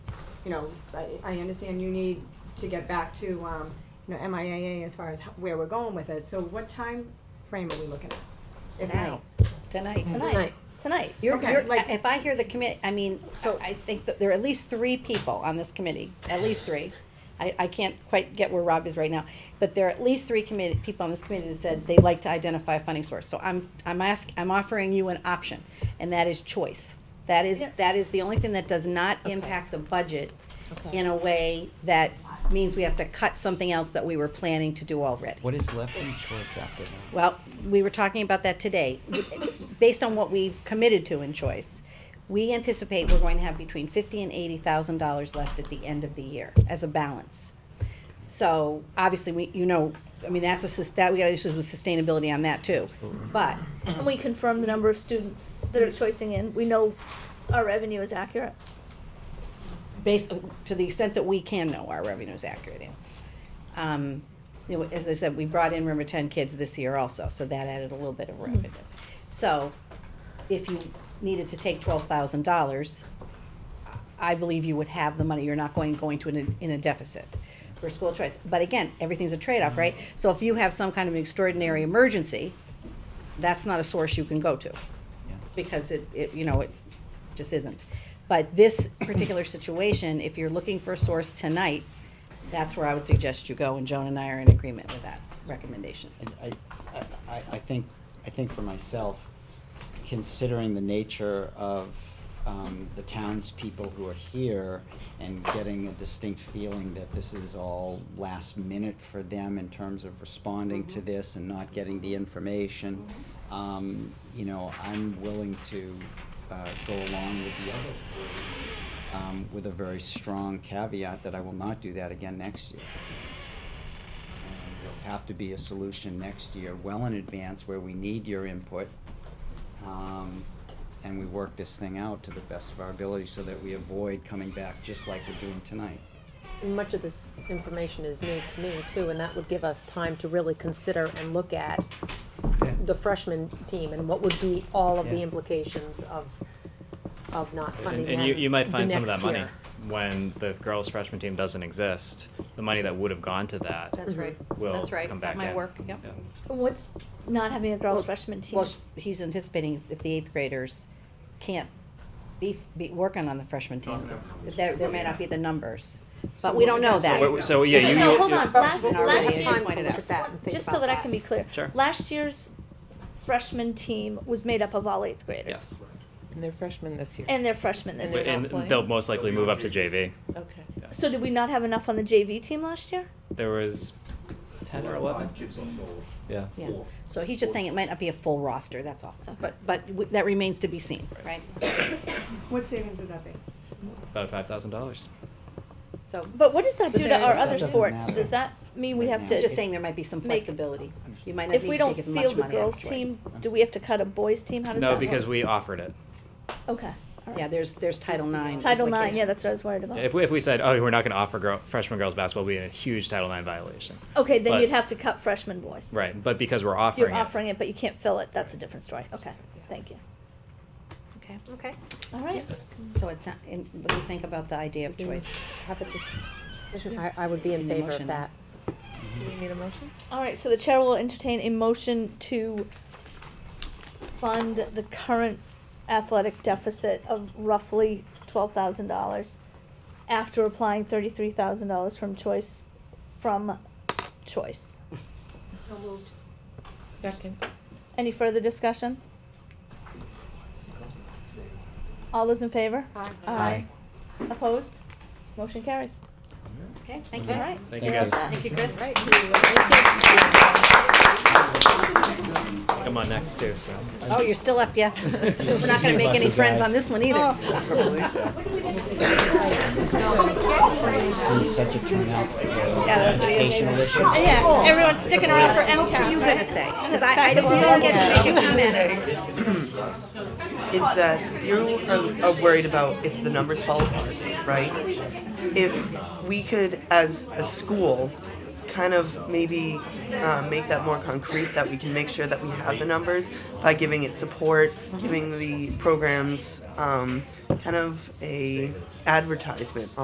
you know, I, I understand you need to get back to, um, you know, MIAA as far as how- where we're going with it, so what time frame are we looking at? If Tonight. now? Tonight, Tonight. tonight, tonight. You're, Okay, you're, like- if I hear the commit, I mean, so I think that there are at least three people on this committee, at least three. I, I can't quite get where Rob is right now, but there are at least three committee, people on this committee that said they like to identify a funding source. So I'm, I'm ask, I'm offering you an option, and that is choice. That is, Yeah. that is the only thing that does not impact the budget in a way that means we have to cut something else that we were planning to do already. What is left in choice after that? Well, we were talking about that today. Based on what we've committed to in choice, we anticipate we're going to have between fifty and eighty thousand dollars left at the end of the year as a balance. So obviously, we, you know, I mean, that's a, sus- that, we got issues with sustainability on that too. But And we confirm the number of students that are choicing in, we know our revenue is accurate. based, to the extent that we can know our revenue is accurate in. Um, you know, as I said, we brought in, remember, ten kids this year also, so that added a little bit of revenue. So, if you needed to take twelve thousand dollars, I believe you would have the money, you're not going, going to an, in a deficit for school choice. But again, everything's a trade-off, right? So if you have some kind of extraordinary emergency, that's not a source you can go to. Because it, it, you know, it just isn't. But this particular situation, if you're looking for a source tonight, that's where I would suggest you go, and Joan and I are in agreement with that recommendation. And I, I- I, I think, I think for myself, considering the nature of um, the townspeople who are here and getting a distinct feeling that this is all last minute for them in terms of responding to this and not getting the information, um, you know, I'm willing to uh, go along with the other three, um, with a very strong caveat that I will not do that again next year. And There'll have to be a solution next year, well in advance, where we need your input. um, And we work this thing out to the best of our ability so that we avoid coming back just like we're doing tonight. Much of this information is new to me too, and that would give us time to really consider and look at the freshman team and what would be all of the Yeah. implications of, of not funding And, them. and you, you might find the some of that next money year. when the girls freshman team doesn't exist. The money that would have gone to that That's right. will That's right. come That back might in. work, yep. Yeah. And what's not having a girls freshman team? Well, sh- he's anticipating if the eighth graders can't be, be working on the freshman team, there, there may not be the numbers, but we don't know Wait, wait, that. So yeah, you. No, you- hold on, last, Already last you time, pointed out. just that and think Just so about that I can be clear. Sure. Last year's freshman team was made up of all eighth graders. Yes. And they're freshmen this year. And they're freshmen this Wait, year. And playing? they'll most likely move up to JV. Okay. So did we not have enough on the JV team last year? There was ten or eleven. Yeah. Yeah. So he's just saying it might not be a full roster, that's all, but, but w- that remains to be seen, right? What savings would that be? About five thousand dollars. So, But what does that do to there- our that other doesn't sports? matter. Does that mean we Right have now. to? he's just saying there might be some Make- flexibility, you might not If need we to don't take as much field the money out of girls choice. team, do we have to cut a boys team? How does that No, work? because we offered it. Okay. all right. Yeah, there's, there's Title IX. Title nine, yeah, implications. that's what I was worried about. If we, if we said, oh, we're not going to offer girl, freshman girls basketball, we'd be in a huge Title IX violation. Okay, then But- you'd have to cut freshman boys. Right, but because we're offering You're it, offering it, but you can't fill it, that's a different story, okay, thank you. Okay, okay. All right, So it's, not- and what do you think about the idea of choice? Mm-hmm. How about this? I, I would be in Need a favor motion. of that. Do we need a motion? all right, so the chair will entertain a motion to fund the current athletic deficit of roughly twelve thousand dollars after applying thirty-three thousand dollars from choice, from choice. Second. Any further discussion? All those in favor? Aye. Aye. Opposed? Motion carries. Okay, thank All right. Thank you guys. Thank you, Chris. Come on next too. So. Oh, you're still up, yeah. We're not gonna make any friends on this one Oh. either. See such a turnout for the Yeah. educational issue. Yeah, everyone's sticking around for What are you MCAS, gonna say? Cause I, I don't, we don't get to make a comment. is that you are, are worried about if the numbers fall apart, right? If we could, as a school, kind of maybe uh, make that more concrete, that we can make sure that we have the numbers by giving it support, giving the programs um, kind of a advertisement